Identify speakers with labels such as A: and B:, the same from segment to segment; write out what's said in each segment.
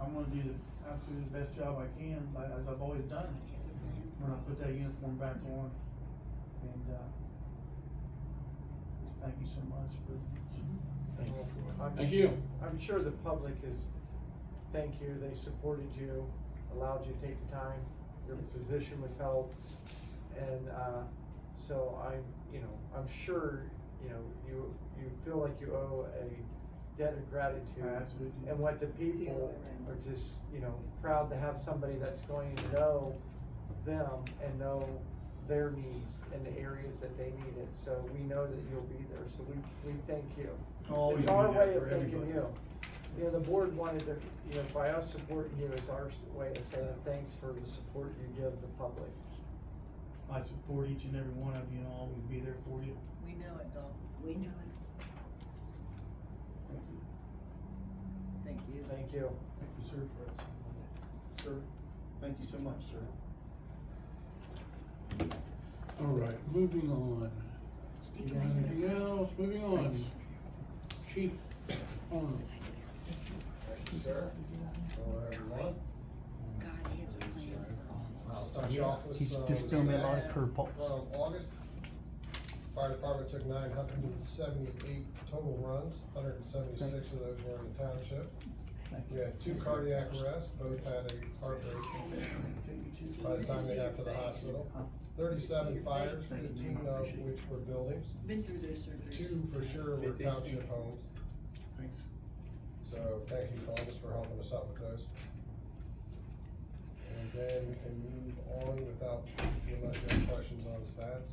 A: I'm gonna do the absolute best job I can, like, as I've always done, when I put that uniform back on. And, uh, just thank you so much for. I'm
B: Thank
A: su-
B: you.
C: I'm sure the public is, thank you, they supported you, allowed you to take the time, your position was helped. And, uh, so I'm, you know, I'm sure, you know, you, you feel like you owe a debt of
A: I
C: gratitude.
A: absolutely do.
C: And what the
D: It's the other
C: people
D: way around.
C: are just, you know, proud to have somebody that's going to know them and know their needs and the areas that they need it. So we know that you'll be there, so we, we thank you.
A: I'll always
C: It's our
A: do that
C: way
A: for
C: of thanking
A: everybody.
C: you. You know, the board wanted to, you know, by us supporting you is our s- way of saying thanks for the support you give the public.
A: I support each and every one of you, and I'll always be there for you.
D: We know it, Dawn. We know it.
A: Thank you.
D: Thank you.
C: Thank you.
A: Thank you, sir. Sir, thank you so much, sir.
B: All right, moving on. You got anything else? Moving on. Chief uh, mm, Arnold.
E: Thank you, sir. Hello, everyone.
D: God has a plan for all.
E: I'll start you off with
F: He's
E: some
F: just doing a lot of
E: stats
F: curveballs.
E: From August, fire department took nine hundred and seventy-eight total runs, hundred and seventy-six of those were in the township. We had two cardiac arrests, both had a heart rate by the time they got to the hospital. Thirty-seven fires, fifteen of which were buildings,
D: Been through their surgery.
E: two for sure were township homes.
A: Thanks.
E: So thank you, Columbus, for helping us out with those. And then we can move on without, without any questions on stats.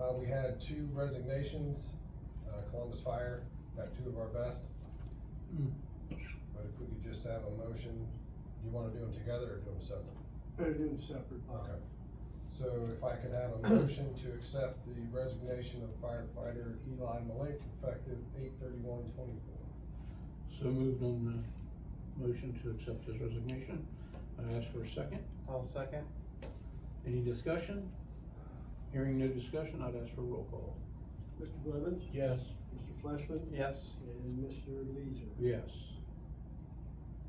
E: Uh, we had two resignations, uh, Columbus Fire, got two of our best,
B: Mm.
E: but if we could just have a motion, do you wanna do them together or do them separate?
A: Better do them separate.
E: Okay. So if I could have a motion to accept the resignation of firefighter Eli Malik effective eight thirty-one twenty-four.
B: So moved on the motion to accept his resignation. I ask for a second.
C: I'll second.
B: Any discussion? Hearing no discussion, I'd ask for a roll call.
G: Mr. Blevins?
B: Yes.
G: Mr. Fleshman?
C: Yes.
G: And Mr. Leeser?
B: Yes.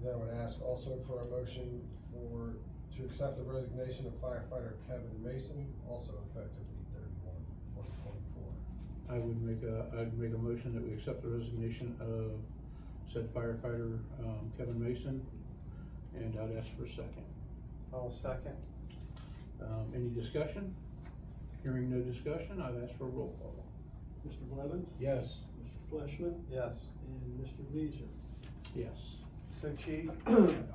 E: Then I would ask also for a motion for, to accept the resignation of firefighter Kevin Mason, also effective eight thirty-one one twenty-four.
B: I would make a, I'd make a motion that we accept the resignation of said firefighter, um, Kevin Mason, and I'd ask for a second.
C: I'll second.
B: Um, any discussion? Hearing no discussion, I'd ask for a roll call.
G: Mr. Blevins?
B: Yes.
G: Mr. Fleshman?
C: Yes.
G: And Mr. Leeser?
B: Yes.
C: So chief,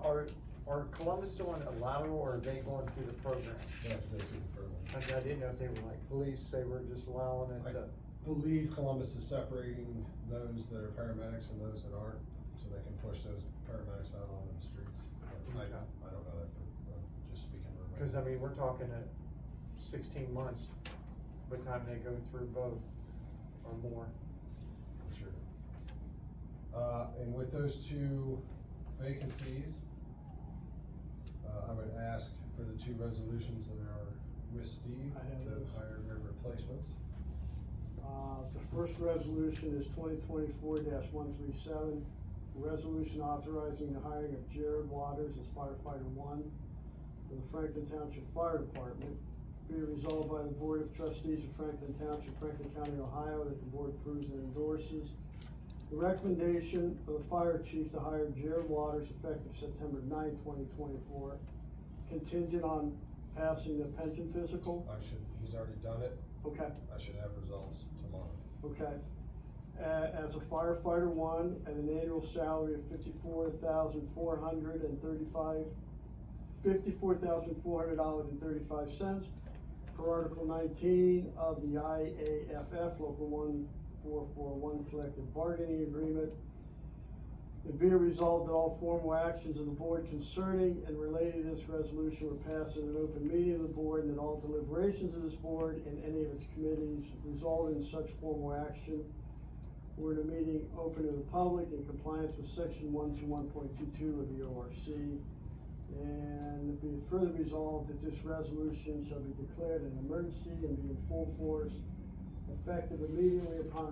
C: are, are Columbus doing a lateral or are they going through the program?
E: You have to go through the program.
C: I I didn't know if they were like police, they were just allowing it to.
E: Believe Columbus is separating those that are paramedics and those that aren't, so they can push those paramedics out onto the streets. But I,
C: Okay.
E: I don't know that, for- I'm just speaking. for-
C: Cause I mean, we're talking at sixteen months by the time they go through both or more.
E: For sure. Uh, and with those two vacancies, uh, I would ask for the two resolutions that are with Steve
G: I have
E: to
G: those.
E: hire their replacements.
G: Uh, the first resolution is twenty twenty-four one three seven. Resolution authorizing the hiring of Jared Waters as firefighter one for the Franklin Township Fire Department. Be it resolved by the Board of Trustees of Franklin Township, Franklin County, Ohio, that the board approves and endorses the recommendation of the fire chief to hire Jared Waters effective September 9, twenty twenty-four, contingent on passing the pension physical.
E: I should, he's already done it,
G: Okay.
E: I should have results tomorrow.
G: Okay. Uh, as a firefighter one, at an annual salary of fifty-four thousand four hundred and thirty-five, fifty-four thousand four hundred dollars and thirty-five cents per Article nineteen of the IAFF Local one four four one Collective Bargaining Agreement. And be it resolved that all formal actions of the board concerning and related to this resolution were passed in an open meeting of the board, and that all deliberations of this board and any of its committees result in such formal action were in a meeting open to the public in compliance with section one two one point two two of the ORC. And be it further resolved that this resolution shall be declared an emergency and be in full force effective immediately upon